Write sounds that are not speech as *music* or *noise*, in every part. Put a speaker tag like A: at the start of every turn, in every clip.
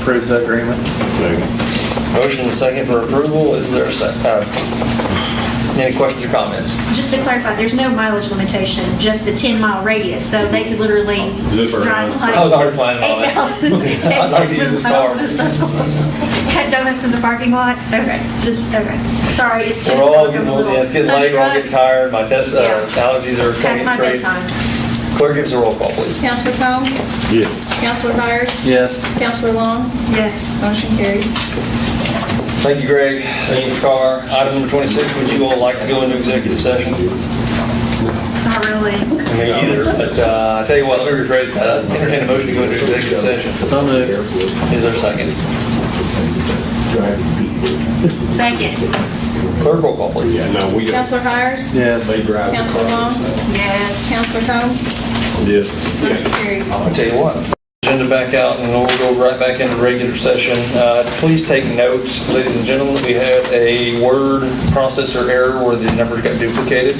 A: Approve the agreement.
B: Second.
C: Motion and second for approval, is there, a sec- uh, any questions or comments?
D: Just to clarify, there's no mileage limitation, just the 10-mile radius, so they could literally
B: Zip around.
D: drive like...
C: I was oh, already planning on it. *laughs*
D: 8,000
C: I'd like to use this car.
D: 8,000 Cut donuts in the parking lot? Okay, just, okay. Sorry, it's
C: So
D: just...
C: we're all
D: I'm
C: getting
D: a
C: old,
D: little
C: yeah, it's getting late, we're all
D: punch
C: getting
D: drunk.
C: tired, my test, uh,
D: Yeah.
C: allergies are
D: Past
C: coming
D: my
C: crazy.
D: bedtime.
C: Clerk, give us a roll call, please.
E: Counselor Combs?
B: Yeah.
E: Counselor Hires?
C: Yes.
E: Counselor Long?
D: Yes.
E: Motion carried.
C: Thank you, Greg. Thank you, Carr. Item number 26, would you all like to go into executive session?
D: Not really.
C: I mean, either, but uh, I tell you what, let me rephrase that. Entertain a motion to go into executive session.
A: So moved.
C: Is there a second?
D: Second.
C: Clerk, roll call, please.
B: Yeah, no, we got.
E: Counselor Hires?
A: Yes.
B: They drive.
E: Counselor Long?
D: Yes.
E: Counselor Combs?
B: Yes.
E: Motion carried.
C: I'll tell you what. Agenda back out, and we'll go right back into regular session. Uh, Please take notes, ladies and gentlemen, we had a word processor error where the numbers got duplicated.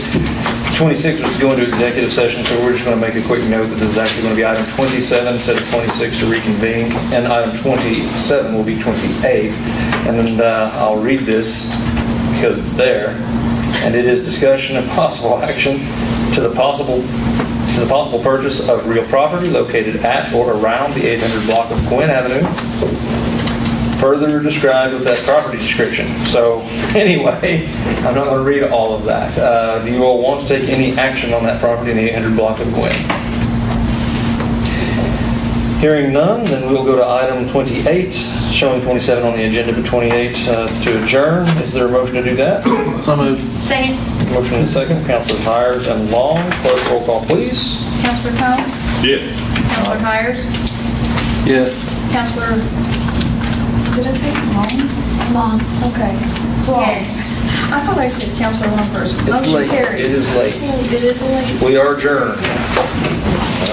C: 26 was to go into executive session, so we're just going to make a quick note that this is actually going to be item 27 instead of 26 to reconvene, and item 27 will be 28. And then uh, I'll read this because it's there and it is discussion and possible action to the possible, to the possible purchase of real property located at or around the 800 block of Quinn Avenue, further described with that property description. So *laughs* anyway, I'm not going to read all of that. Uh, Do you all want to take any action on that property in the 800 block of Quinn? Hearing none, then we'll go to item 28, showing 27 on the agenda, but 28 uh, to adjourn. Is there a motion to do that?
A: So moved.
D: Second.
C: Motion is second, Counselors Hires and Long. Clerk, roll call, please.
E: Counselor Combs?
B: Yes.
E: Counselor Hires?
A: Yes.
E: Counselor, did I say Long? Long. Okay. Long.
D: Yes.
E: I thought I said Counselor Long first. Motion
C: late.
E: carried.
C: It is late.
E: It is late.
C: We are adjourned.